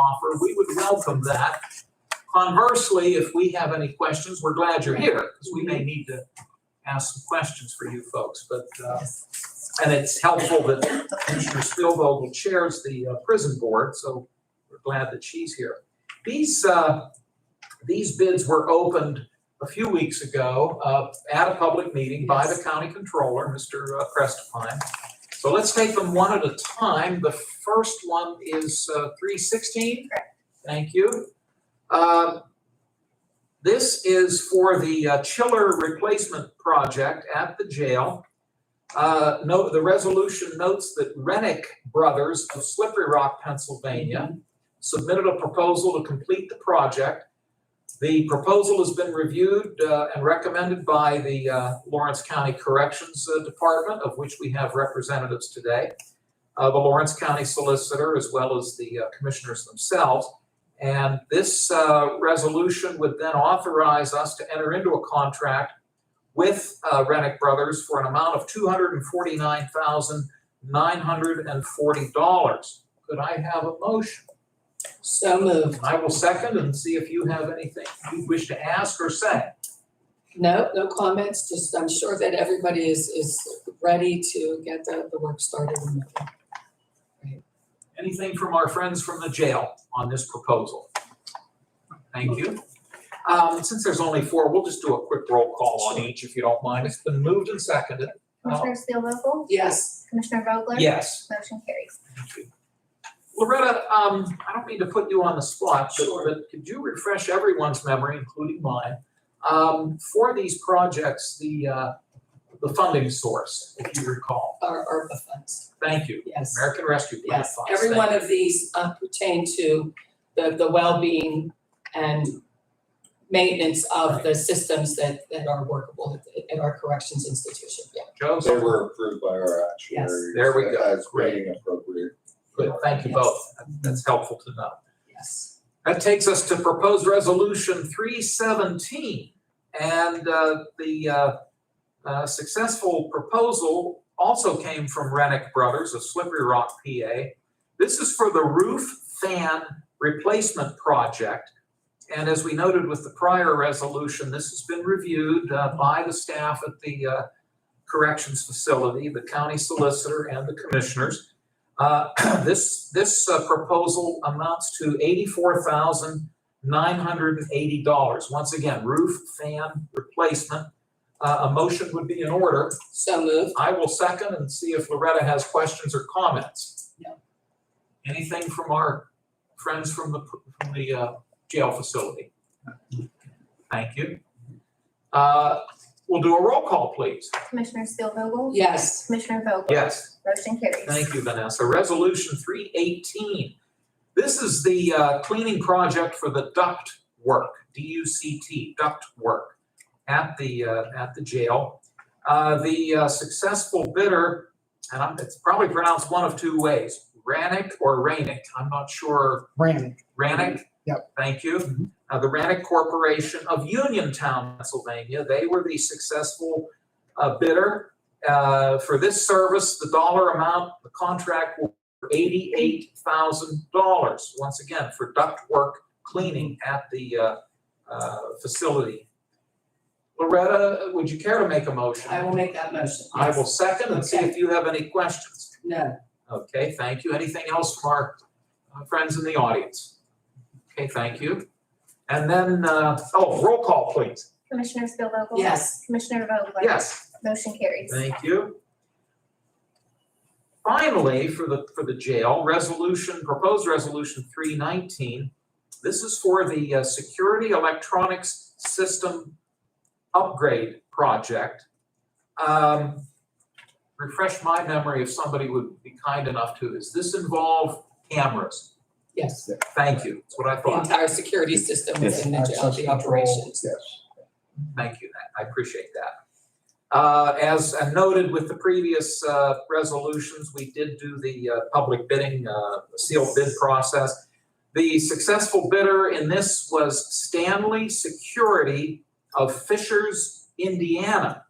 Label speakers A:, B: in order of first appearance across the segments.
A: offer, we would welcome that. Conversely, if we have any questions, we're glad you're here, because we may need to ask some questions for you folks, but, uh, and it's helpful that Commissioner Spielvogel chairs the uh, prison board, so we're glad that she's here. These, uh, these bids were opened a few weeks ago, uh, at a public meeting by the county controller, uh, Mr. Prestipine. So let's take them one at a time. The first one is uh, three sixteen. Thank you. Um, This is for the uh, chiller replacement project at the jail. Uh, No, the resolution notes that Rennick Brothers of Slippery Rock, Pennsylvania submitted a proposal to complete the project. The proposal has been reviewed uh, and recommended by the uh, Lawrence County Corrections uh, Department, of which we have representatives today, uh, the Lawrence County Solicitor, as well as the uh, commissioners themselves. And this uh, resolution would then authorize us to enter into a contract with uh, Rennick Brothers for an amount of $249,940. Could I have a motion?
B: So moved.
A: I will second and see if you have anything you wish to ask or say.
B: No, no comments, just I'm sure that everybody is, is ready to get the, the work started.
A: Anything from our friends from the jail on this proposal? Thank you. Um, since there's only four, we'll just do a quick roll call on each if you don't mind. It's been moved and seconded. Uh,
C: Commissioner Spielvogel?
B: Yes,
C: Commissioner Vogler?
A: Yes.
C: Motion carries.
A: Thank you. Loretta, um, I don't mean to put you on the spot, but, but could you refresh everyone's memory, including mine? Um, for these projects, the, uh, the funding source, if you recall.
B: our ARPA funds,
A: Thank you.
B: yes.
A: American Rescue Plan
B: Yes,
A: funds.
B: every
A: Thank
B: one
A: you.
B: of these uh, pertain to the, the well-being and maintenance of the systems that, that are workable at, at our corrections institution, yeah.
D: They
A: Joseph,
D: were approved by our actuaries.
A: There we go.
D: As rating appropriate.
A: good, thank you
B: Yes.
A: both. That- That's helpful to know.
B: Yes.
A: That takes us to proposed resolution three seventeen. And uh, the uh, uh, successful proposal also came from Rennick Brothers of Slippery Rock, PA. This is for the roof fan replacement project. And as we noted with the prior resolution, this has been reviewed uh, by the staff at the uh, corrections facility, the county solicitor, and the commissioners. Uh, This, this uh, proposal amounts to eighty-four thousand nine hundred and eighty dollars. Once again, roof fan replacement. Uh, A motion would be in order.
B: So moved,
A: I will second and see if Loretta has questions or comments.
B: No.
A: Anything from our friends from the, from the uh, jail facility? Thank you. Uh, We'll do a roll call, please.
C: Commissioner Spielvogel?
B: yes,
C: Commissioner Vogler?
A: Yes.
C: Motion carries.
A: Thank you, Vanessa. Resolution three eighteen. This is the uh, cleaning project for the duct work, D U C T, duct work at the, uh, at the jail. Uh, The uh, successful bidder, and I'm- it's probably pronounced one of two ways, Rannick or Rainick. I'm not sure.
E: Rannick.
A: Rannick?
E: Yep.
A: Thank you. Uh, The Rannick Corporation of Uniontown, Pennsylvania, they were the successful uh, bidder. Uh, for this service, the dollar amount, the contract will be eighty-eight thousand dollars, once again, for ductwork cleaning at the, uh, uh, facility. Loretta, would you care to make a motion?
B: I will make that motion.
A: I will second and see if you have any questions.
B: No,
A: Okay, thank you. Anything else from our uh, friends in the audience? Okay, thank you. And then, uh, oh, roll call, please.
C: Commissioner Spielvogel?
B: yes,
C: Commissioner Vogler?
A: Yes.
C: Motion carries.
A: Thank you. Finally, for the, for the jail, resolution, proposed resolution three nineteen. This is for the uh, Security Electronics System Upgrade Project. Um, Refresh my memory if somebody would be kind enough to, does this involve cameras?
B: yes.
A: Thank you, that's what I
B: The
A: thought.
B: entire security system is in the jail,
E: Access
B: the
E: control,
B: operations.
E: Yes.
A: Thank you, Nat. I appreciate that. Uh, As I noted with the previous uh, resolutions, we did do the uh, public bidding, uh, sealed bid process. The successful bidder in this was Stanley Security of Fishers, Indiana.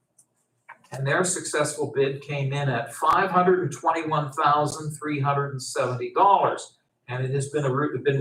A: And their successful bid came in at $521,370. And it has been, a ru- been